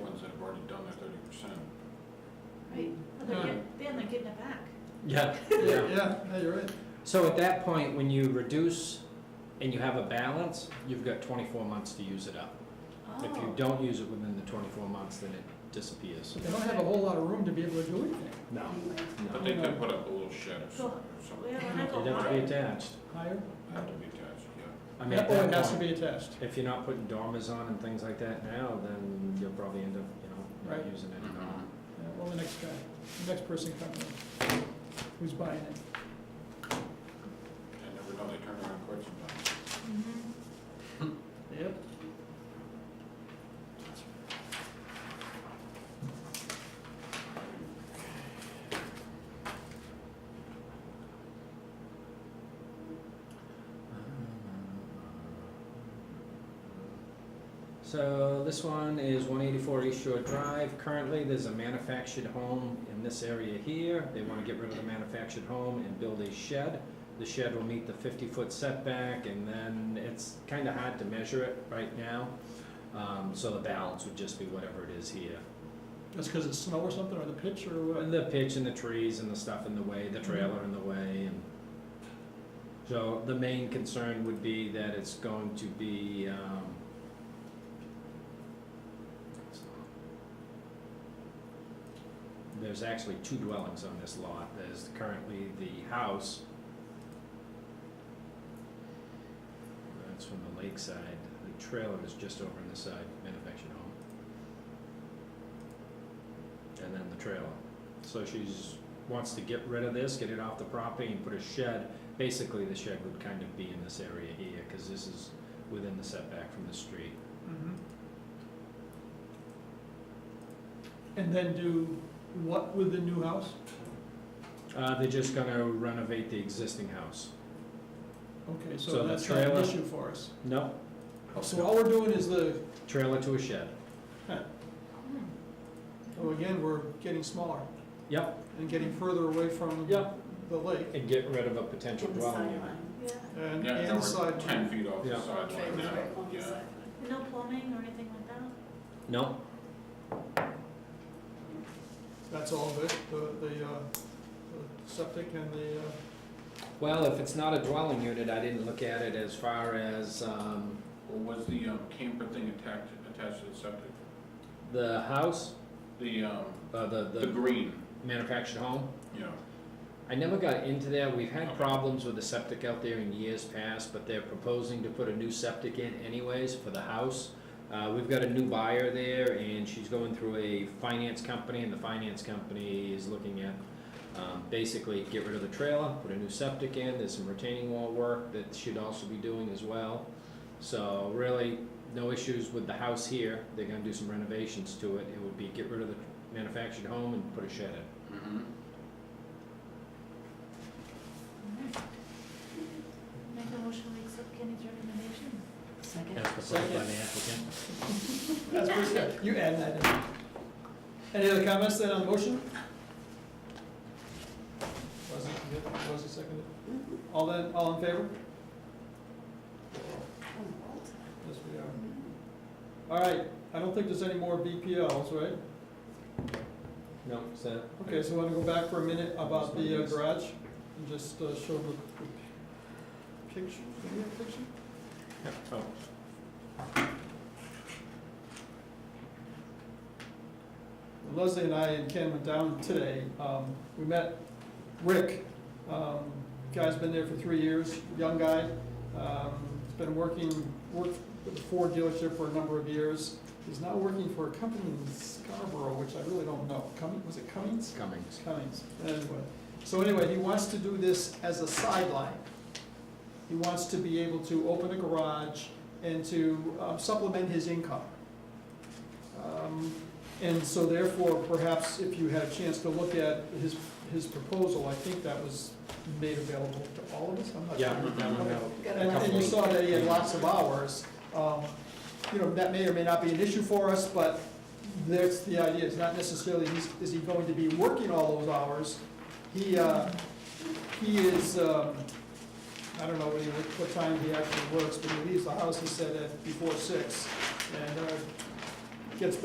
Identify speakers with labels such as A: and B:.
A: have done that thirty percent.
B: Right, well, they're
C: Huh.
B: getting, then they're getting it back.
C: Yeah,
D: Yeah,
C: yeah.
D: yeah, you're right.
C: So at that point, when you reduce and you have a balance, you've got twenty-four months to use it up. If you
B: Oh,
C: don't use it within the twenty-four months, then it disappears.
D: But they don't have a whole lot of room to be able to do anything.
C: No,
A: But
C: no.
A: they could put up a little shed or
B: Go-
A: something, or something.
B: well, when I go
C: It'd have to be
B: by,
C: attached.
D: Higher?
A: Have to be attached, yeah.
C: I mean, at
D: Or it
C: that
D: has to
C: point,
D: be attached.
C: if you're not putting dormers on and things like that now, then you'll probably end up, you know, not
D: Right.
C: using it at
A: um,
C: all.
D: Yeah, well, the next guy, the next person coming in, who's buying it.
A: I never know, they turn around quick sometimes.
B: Mhm.
D: Yep.
C: So this one is one eighty-four East Shore Drive. Currently, there's a manufactured home in this area here. They wanna get rid of the manufactured home and build a shed. The shed will meet the fifty-foot setback, and then it's kinda hard to measure it right now. Um, so the balance would just be whatever it is here.
D: That's because it's snow or something, or the pitch, or what?
C: And the pitch and the trees and the stuff in the way, the trailer in the way and. So the main concern would be that it's going to be, um. There's actually two dwellings on this lot. There's currently the house. That's from the lakeside. The trailer is just over on the side, manufactured home. And then the trailer. So she's, wants to get rid of this, get it off the property and put a shed. Basically, the shed would kind of be in this area here, cause this is within the setback from the street.
D: Mhm. And then do what with the new house?
C: Uh, they're just gonna renovate the existing house.
D: Okay,
C: So
D: so
C: the
D: that's not an
C: trailer-
D: issue for us. Oh,
C: No,
D: So all we're doing is the,
C: trailer to a shed.
B: Hmm.
D: oh, again, we're getting smaller
C: Yep,
D: and getting further away from
C: Yep.
D: the lake.
C: and get rid of a potential
E: On the
C: dwelling
E: sideline,
C: unit.
B: Yeah,
D: And,
A: Yeah, now
D: and
A: we're
D: side.
A: Ten feet off
C: Yeah.
A: the sideline
E: trailers
A: now,
E: right on the
A: yeah.
E: sideline.
B: no plumbing or anything like that?
C: No,
D: That's all of it, the, the, uh, the septic and the, uh,
C: well, if it's not a dwelling unit, I didn't look at it as far as, um,
A: Well, was the um, camper thing attached, attached to the septic?
C: the house,
A: The, um,
C: uh, the,
A: the
C: the
A: green,
C: manufactured home.
A: yeah.
C: I never got into there, we've had problems with the septic out there in years past, but they're proposing to put a new septic in anyways for the house. Uh, we've got a new buyer there and she's going through a finance company and the finance company is looking at, um, basically get rid of the trailer, put a new septic in, there's some retaining wall work that she'd also be doing as well. So really, no issues with the house here, they're gonna do some renovations to it, it would be get rid of the manufactured home and put a shed in.
A: Mhm.
B: Alright. Mm-hmm. Make a motion to accept Kenny's recommendation.
E: Second.
C: As proposed by the applicant.
D: That's pretty good. You add that in. Any other comments then on the motion? Was it, yeah, was it seconded? All that, all in favor? Yes, we are. All right, I don't think there's any more BPLs, right?
C: No, is that?
D: Okay, so I want to go back for a minute about the uh, garage and just uh, show the the picture, do we have a picture?
C: Oh,
D: Leslie and I and Ken went down today. Um, we met Rick. Um, guy's been there for three years, young guy. Um, he's been working, worked with the Ford dealership for a number of years. He's now working for a company in Scarborough, which I really don't know. Cummings, was it Cummings?
C: Cummings.
D: Cummings, anyway. So anyway, he wants to do this as a sideline. He wants to be able to open a garage and to uh, supplement his income. Um, And so therefore, perhaps if you had a chance to look at his, his proposal, I think that was made available to all of us, I'm not sure.
C: Yeah.
D: Okay.
E: Got
D: And, and you
E: it.
D: saw that he had lots of hours, um, you know, that may or may not be an issue for us, but that's the idea, it's not necessarily, he's, is he going to be working all those hours? He, uh, he is, um, I don't know what he, what time he actually works, but he leaves the house, he said, at before six, and, uh, gets